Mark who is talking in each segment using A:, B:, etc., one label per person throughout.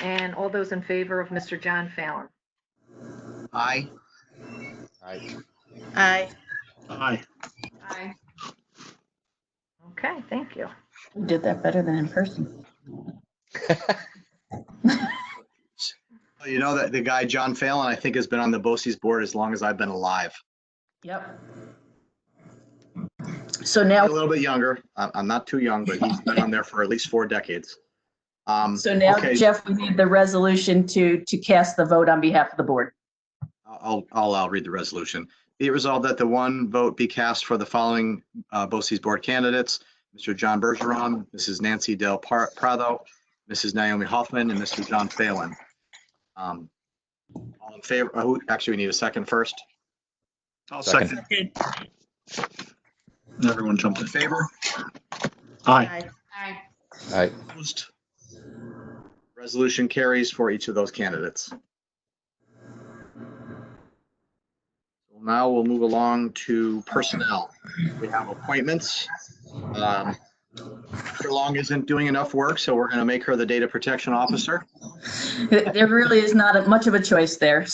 A: And all those in favor of Mr. John Fallon?
B: Aye.
C: Aye.
D: Aye.
E: Aye.
A: Aye. Okay, thank you.
D: You Did that better than in person.
B: You know that the guy, John Fallon, I think has been on the BOCES board as long as I've been alive.
D: Yep. So
B: A
D: now,
B: little bit younger. I'm, I'm not too young, but he's been on there for at least four decades. Um,
D: so now,
B: okay,
D: Jeff, we need the resolution to, to cast the vote on behalf of the board.
B: I'll, I'll, I'll read the resolution. Be it resolved that the one vote be cast for the following uh, BOCES Board candidates, Mr. John Bergeron, Mrs. Nancy Del Par- Prado, Mrs. Naomi Hoffman, and Mr. John Phelan. Um, All in favor, uh, who- actually, we need a second first.
E: I'll
C: Second.
E: second. Everyone jumped
B: All
E: in.
B: in favor?
E: Aye.
A: Aye.
C: Aye.
E: Opposed?
B: Resolution carries for each of those candidates. Now we'll move along to personnel. We have appointments. Um, Dr. Long isn't doing enough work, so we're going to make her the data protection officer.
D: There really is not much of a choice there.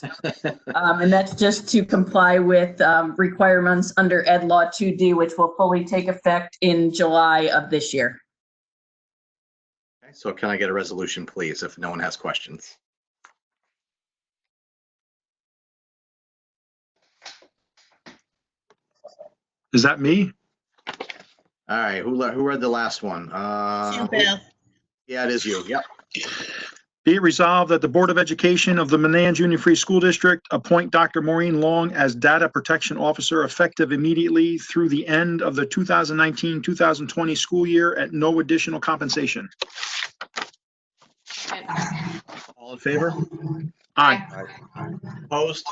D: Um, and that's just to comply with, um, requirements under Ed Law 2D, which will fully take effect in July of this year.
B: Okay, So can I get a resolution, please, if no one has questions?
E: Is that me?
B: All right, who, le- who read the last one? Uh, Yeah, it is you. Yep.
E: Be it resolved that the Board of Education of the Manan Junior Free School District appoint Dr. Maureen Long as Data Protection Officer effective immediately through the end of the 2019-2020 school year at no additional compensation.
B: All in favor?
E: Aye.
B: Opposed?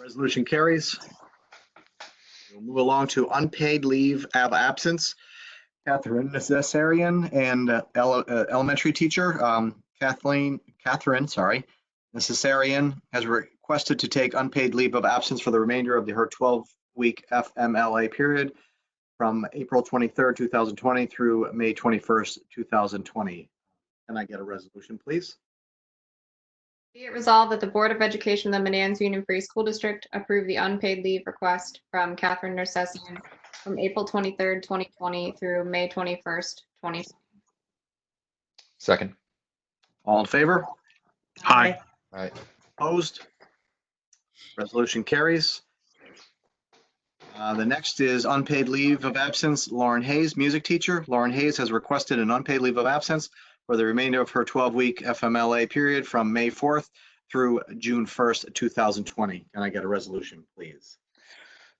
B: Resolution carries. We'll move along to unpaid leave of absence. Catherine Necessarian and uh, ele- uh, elementary teacher um, Kathleen, Catherine, sorry, Necessarian has requested to take unpaid leave of absence for the remainder of the- her 12-week FMLA period from April 23rd, 2020 through May 21st, 2020. Can I get a resolution, please?
F: Be it resolved that the Board of Education of the Manans Union Free School District approve the unpaid leave request from Catherine Nersessian from April 23rd, 2020 through May 21st, 2020.
C: Second.
B: All in favor?
E: Aye.
C: Aye.
B: Opposed? Resolution carries. Uh, The next is unpaid leave of absence, Lauren Hayes, music teacher. Lauren Hayes has requested an unpaid leave of absence for the remainder of her 12-week FMLA period from May 4th through June 1st, 2020. Can I get a resolution, please?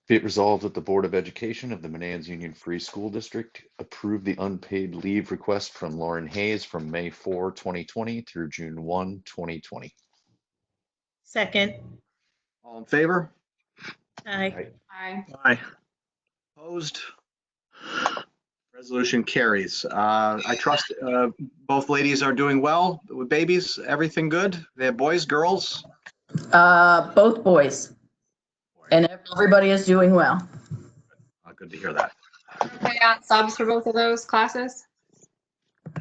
C: Be it resolved that the Board of Education of the Manans Union Free School District approve the unpaid leave request from Lauren Hayes from May 4, 2020 through June 1, 2020.
G: Second,
B: All in favor?
G: aye.
F: Aye.
E: Aye.
B: Opposed? Resolution carries. Uh, I trust uh, both ladies are doing well with babies. Everything good? They have boys, girls?
D: Uh, both boys. And everybody is doing well.
B: Uh, Good to hear that.
F: Okay, on subs for both of those classes?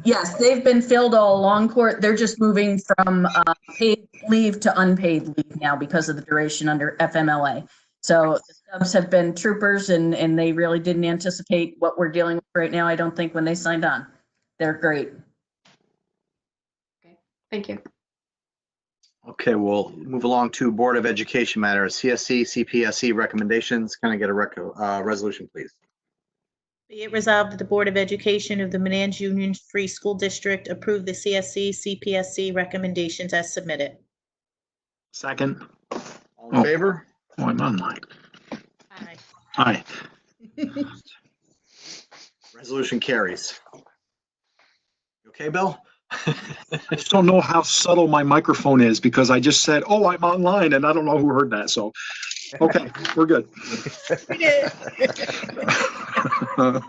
D: Yes, they've been filled all along court. They're just moving from uh, paid leave to unpaid leave now because of the duration under FMLA. So the subs have been troopers and, and they really didn't anticipate what we're dealing with right now, I don't think, when they signed on. They're great.
F: Thank you.
B: Okay, we'll move along to Board of Education matters, CSC, CPSC recommendations. Can I get a rec, uh, resolution, please?
G: Be it resolved that the Board of Education of the Manans Union Free School District approve the CSC, CPSC recommendations as submitted.
E: Second.
B: All in
E: Oh.
B: favor?
E: Oh, I'm online.
G: Aye.
E: Aye.
B: Resolution carries. You Okay, Bill?
E: I just don't know how subtle my microphone is because I just said, oh, I'm online, and I don't know who heard that, so, okay, we're good.
G: We did.
E: All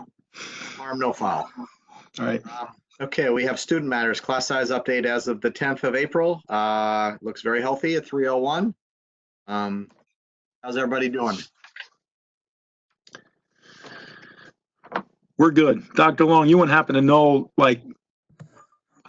B: Harm, no foul.
E: right,
B: Okay, we have student matters, class size update as of the 10th of April. Uh, looks very healthy at 301. Um, how's everybody doing?
E: we're good. Dr. Long, you wouldn't happen to know, like,